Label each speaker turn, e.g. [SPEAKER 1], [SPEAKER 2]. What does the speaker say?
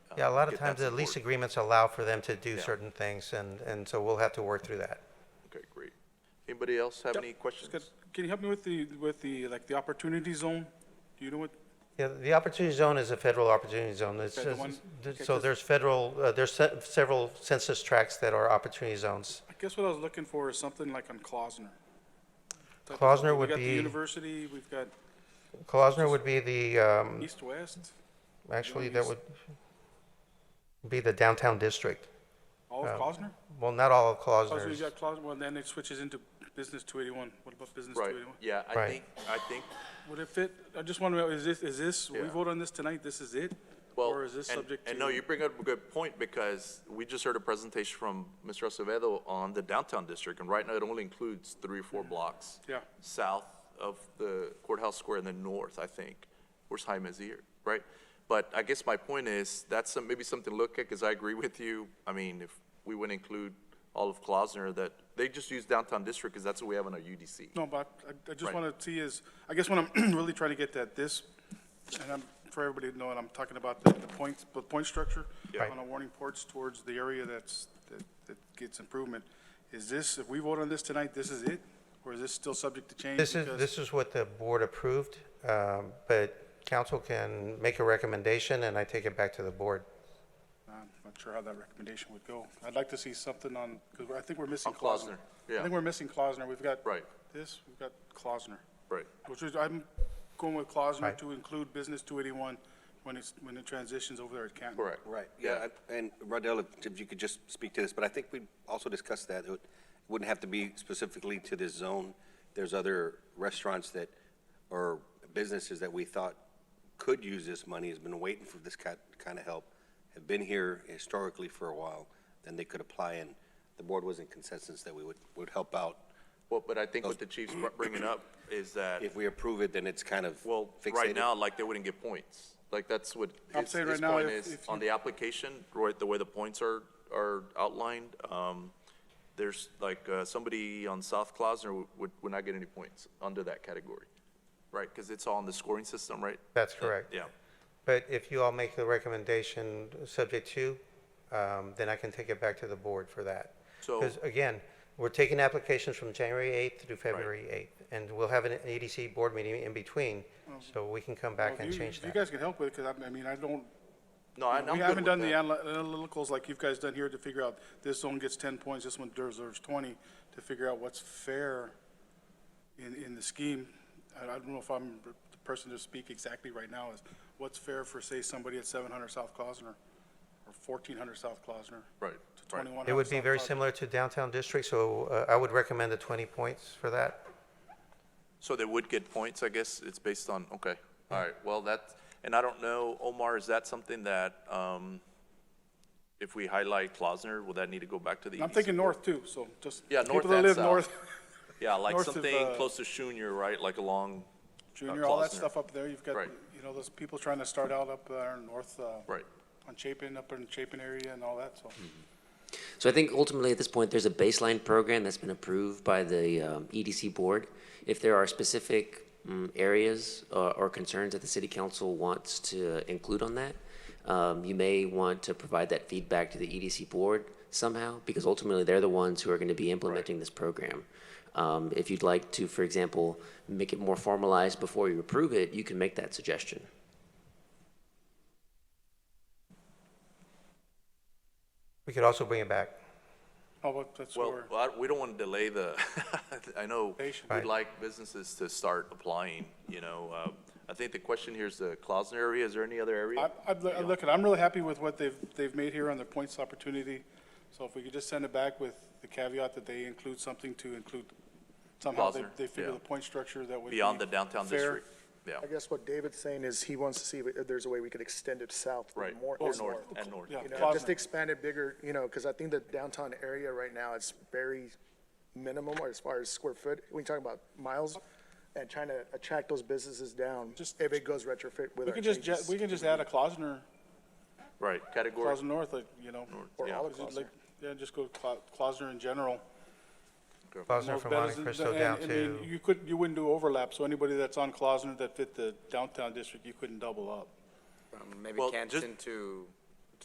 [SPEAKER 1] Yeah, a lot of
[SPEAKER 2] Uh, get that
[SPEAKER 1] times the lease
[SPEAKER 2] support.
[SPEAKER 1] agreements allow for them to do
[SPEAKER 2] Yeah.
[SPEAKER 1] certain things, and, and so we'll have to work through that.
[SPEAKER 2] Okay, great. Anybody else have
[SPEAKER 3] Yep,
[SPEAKER 2] any questions?
[SPEAKER 3] That's good. Can you help me with the, with the, like, the opportunity zone? Do you know what,
[SPEAKER 1] Yeah, the opportunity zone is a federal opportunity zone. It's
[SPEAKER 3] Okay, the
[SPEAKER 1] just-
[SPEAKER 3] one-
[SPEAKER 1] th-
[SPEAKER 3] okay,
[SPEAKER 1] so
[SPEAKER 3] 'cause-
[SPEAKER 1] there's federal, uh, there's se- several census tracts that are opportunity zones.
[SPEAKER 3] I guess what I was looking for is something like on Klausner. Type of
[SPEAKER 1] Klausner
[SPEAKER 3] something.
[SPEAKER 1] would
[SPEAKER 3] We've got the
[SPEAKER 1] be-
[SPEAKER 3] university, we've got
[SPEAKER 1] Klausner would be the, um,
[SPEAKER 3] east-west,
[SPEAKER 1] actually,
[SPEAKER 3] Don't
[SPEAKER 1] that
[SPEAKER 3] use-
[SPEAKER 1] would be the downtown district.
[SPEAKER 3] all of Klausner?
[SPEAKER 1] Well, not all of
[SPEAKER 3] Klausner, you
[SPEAKER 1] Klausner's.
[SPEAKER 3] got Klausner, well, then it switches into business two eighty-one. What about business two
[SPEAKER 2] Right,
[SPEAKER 3] eighty-one?
[SPEAKER 2] yeah, I
[SPEAKER 1] Right.
[SPEAKER 2] think, I think,
[SPEAKER 3] Would it fit, I just want to know, is this, is this, we
[SPEAKER 2] Yeah.
[SPEAKER 3] vote on this tonight, this is it?
[SPEAKER 2] well,
[SPEAKER 3] Or is this
[SPEAKER 2] and-
[SPEAKER 3] subject to?
[SPEAKER 2] and no, you bring up a good point, because we just heard a presentation from Mr. Acevedo on the downtown district, and right now it only includes three or four blocks.
[SPEAKER 3] Yeah.
[SPEAKER 2] South of the courthouse square and then north, I think, where's High Mizzier, right? But I guess my point is, that's some, maybe something to look at, because I agree with you. I mean, if we would include all of Klausner, that, they just use downtown district, because that's what we have in our UDC.
[SPEAKER 3] No, but I, I just
[SPEAKER 2] Right.
[SPEAKER 3] want to see is, I guess what I'm really trying to get at this, and I'm, for everybody to know, and I'm talking about the, the points, the point structure
[SPEAKER 2] Yeah.
[SPEAKER 3] on a warning porch towards the area that's, that, that gets improvement. Is this, if we vote on this tonight, this is it? Or is this still subject to change?
[SPEAKER 1] This is,
[SPEAKER 3] Because-
[SPEAKER 1] this is what the board approved, um, but council can make a recommendation, and I take it back to the board.
[SPEAKER 3] I'm not sure how that recommendation would go. I'd like to see something on, because I think we're missing
[SPEAKER 2] On
[SPEAKER 3] Klausner.
[SPEAKER 2] Klausner,
[SPEAKER 3] I
[SPEAKER 2] yeah.
[SPEAKER 3] think we're missing Klausner. We've got.
[SPEAKER 2] Right.
[SPEAKER 3] This, we've got Klausner.
[SPEAKER 2] Right.
[SPEAKER 3] Which is, I'm going with Klausner
[SPEAKER 1] Right.
[SPEAKER 3] to include business two eighty-one when it's, when it transitions over there at Canton.
[SPEAKER 2] Correct.
[SPEAKER 4] Right, yeah, I- and Rodell, if you could just speak to this, but I think we also discussed that, it would- it wouldn't have to be specifically to this zone. There's other restaurants that, or businesses that we thought could use this money, has been waiting for this kind, kind of help, have been here historically for a while, then they could apply, and the board was in consensus that we would, would help out.
[SPEAKER 2] Well, but I think what the chief's br- bringing up is that,
[SPEAKER 4] If we approve it, then it's kind of
[SPEAKER 2] well,
[SPEAKER 4] fixated.
[SPEAKER 2] right now, like, they wouldn't get points. Like, that's what
[SPEAKER 3] I'm
[SPEAKER 2] his,
[SPEAKER 3] saying right
[SPEAKER 2] his
[SPEAKER 3] now,
[SPEAKER 2] point
[SPEAKER 3] if-
[SPEAKER 2] is,
[SPEAKER 3] if
[SPEAKER 2] on
[SPEAKER 3] you-
[SPEAKER 2] the application, right, the way the points are, are outlined, um, there's, like, uh, somebody on South Klausner would- would, would not get any points under that category, right? Because it's all in the scoring system, right?
[SPEAKER 1] That's correct.
[SPEAKER 2] Yeah,
[SPEAKER 1] But if you all make the recommendation subject to, um, then I can take it back to the board for that.
[SPEAKER 2] So-
[SPEAKER 1] Because again, we're taking applications from January 8th through February 8th, and we'll have an EDC board meeting in between, so we can come
[SPEAKER 3] Well,
[SPEAKER 1] back
[SPEAKER 3] if
[SPEAKER 1] and
[SPEAKER 3] you-
[SPEAKER 1] change
[SPEAKER 3] if You
[SPEAKER 1] that.
[SPEAKER 3] guys can help with it, because I, I mean, I don't,
[SPEAKER 2] no, I- I'm
[SPEAKER 3] we
[SPEAKER 2] good
[SPEAKER 3] haven't
[SPEAKER 2] with
[SPEAKER 3] done the
[SPEAKER 2] that.
[SPEAKER 3] anal- analyticals like you guys done here to figure out this zone gets ten points, this one deserves twenty, to figure out what's fair in, in the scheme. I, I don't know if I'm the person to speak exactly right now is what's fair for, say, somebody at seven hundred South Klausner or fourteen hundred South Klausner.
[SPEAKER 2] Right,
[SPEAKER 3] To
[SPEAKER 2] right.
[SPEAKER 3] twenty-one hundred.
[SPEAKER 1] It would be very similar to downtown district, so uh, I would recommend the 20 points for that.
[SPEAKER 2] So they would get points, I guess, it's based on, okay, all right, well, that, and I don't know, Omar, is that something that, um, if we highlight Klausner, will that need to go back to the E EDC?
[SPEAKER 3] I'm thinking north too, so just.
[SPEAKER 2] Yeah, north
[SPEAKER 3] people that
[SPEAKER 2] and
[SPEAKER 3] live
[SPEAKER 2] south.
[SPEAKER 3] north,
[SPEAKER 2] Yeah, like
[SPEAKER 3] north of,
[SPEAKER 2] something
[SPEAKER 3] uh,
[SPEAKER 2] close to Schuner, right, like along,
[SPEAKER 3] Junior, all that
[SPEAKER 2] Klausner.
[SPEAKER 3] stuff up there, you've got,
[SPEAKER 2] Right.
[SPEAKER 3] you know, those people trying to start out up there in north, uh.
[SPEAKER 2] right, Hmm.
[SPEAKER 3] on Chapin, up in Chapin area and all that, so.
[SPEAKER 5] So I think ultimately at this point, there's a baseline program that's been approved by the um, EDC board. If there are specific mm, areas uh, or concerns that the city council wants to include on that, um, you may want to provide that feedback to the EDC board somehow, because ultimately they're the ones who are going to be implementing this program. Um, If you'd like to, for example, make it more formalized before you approve it, you can make that suggestion.
[SPEAKER 1] We could also bring it back.
[SPEAKER 3] Oh, but that's
[SPEAKER 2] well,
[SPEAKER 3] where,
[SPEAKER 2] I- we don't want to delay the, I know,
[SPEAKER 3] Patient.
[SPEAKER 2] we'd
[SPEAKER 1] Right.
[SPEAKER 2] like businesses to start applying, you know, uh, I think the question here is the Klausner area, is there any other area?
[SPEAKER 3] I, I'm loo- I'm looking, I'm really happy with what they've, they've made here on the points opportunity. So if we could just send it back with the caveat that they include something to include, somehow they,
[SPEAKER 2] Klausner,
[SPEAKER 3] they figure
[SPEAKER 2] yeah.
[SPEAKER 3] the point structure that would be.
[SPEAKER 2] Beyond the downtown
[SPEAKER 3] fair.
[SPEAKER 2] district, yeah,
[SPEAKER 6] I guess what David's saying is he wants to see if there's a way we could extend it south.
[SPEAKER 2] right,
[SPEAKER 6] more-
[SPEAKER 2] or
[SPEAKER 6] is
[SPEAKER 2] north,
[SPEAKER 6] more.
[SPEAKER 2] and north.
[SPEAKER 3] Yeah.
[SPEAKER 6] You know,
[SPEAKER 3] Klausner.
[SPEAKER 6] just expand it bigger, you know, because I think the downtown area right now, it's very minimum as far as square foot. We're talking about miles and trying to attract those businesses down
[SPEAKER 3] Just-
[SPEAKER 6] if it goes retrofit
[SPEAKER 3] We
[SPEAKER 6] with our
[SPEAKER 3] can just, ju-
[SPEAKER 6] changes.
[SPEAKER 3] we can just add a Klausner,
[SPEAKER 2] Right, category,
[SPEAKER 3] Klausner North, like, you know.
[SPEAKER 6] Or
[SPEAKER 2] yeah.
[SPEAKER 6] all
[SPEAKER 3] Is it
[SPEAKER 6] across
[SPEAKER 3] like- Yeah, just go Cla- Klausner in general.
[SPEAKER 1] Klausner
[SPEAKER 3] Most
[SPEAKER 1] from
[SPEAKER 3] betters-
[SPEAKER 1] Monte Cristo
[SPEAKER 3] and-
[SPEAKER 1] down
[SPEAKER 3] I mean,
[SPEAKER 1] to,
[SPEAKER 3] You could, you wouldn't do overlap, so anybody that's on Klausner that fit the downtown district, you couldn't double up.
[SPEAKER 7] From maybe
[SPEAKER 2] Well, just-
[SPEAKER 7] Canton to